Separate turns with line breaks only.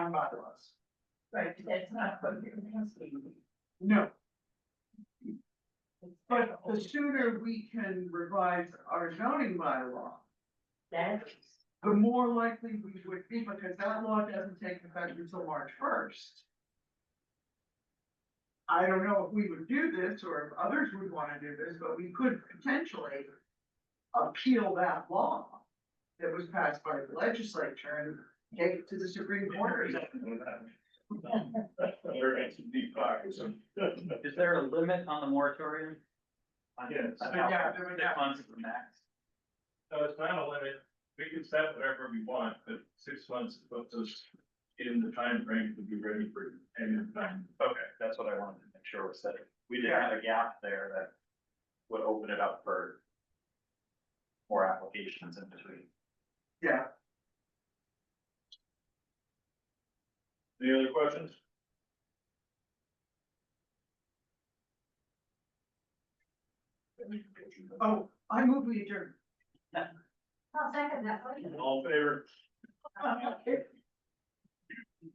town bylaws.
Right, but that's not what you're asking.
No, but the sooner we can revise our zoning bylaw,
That's,
the more likely we would be, because that law doesn't take effect until March first. I don't know if we would do this or if others would wanna do this, but we could potentially appeal that law that was passed by the legislature and take it to the Supreme Court. or something.
They're in some deep pockets.
Is there a limit on the moratorium? On-
Yes.
on
But
how-
yeah, there would
Six months is the max.
So it's not a limit, we can set whatever we want, but six months puts us in the time frame to be ready for uh, any of the time.
Okay, that's what I wanted to make sure was that we didn't have a gap there that would open it up for more applications in between.
Yeah,
Any other questions?
oh, I move we adjourn.
I'll second that. one.
All in favor?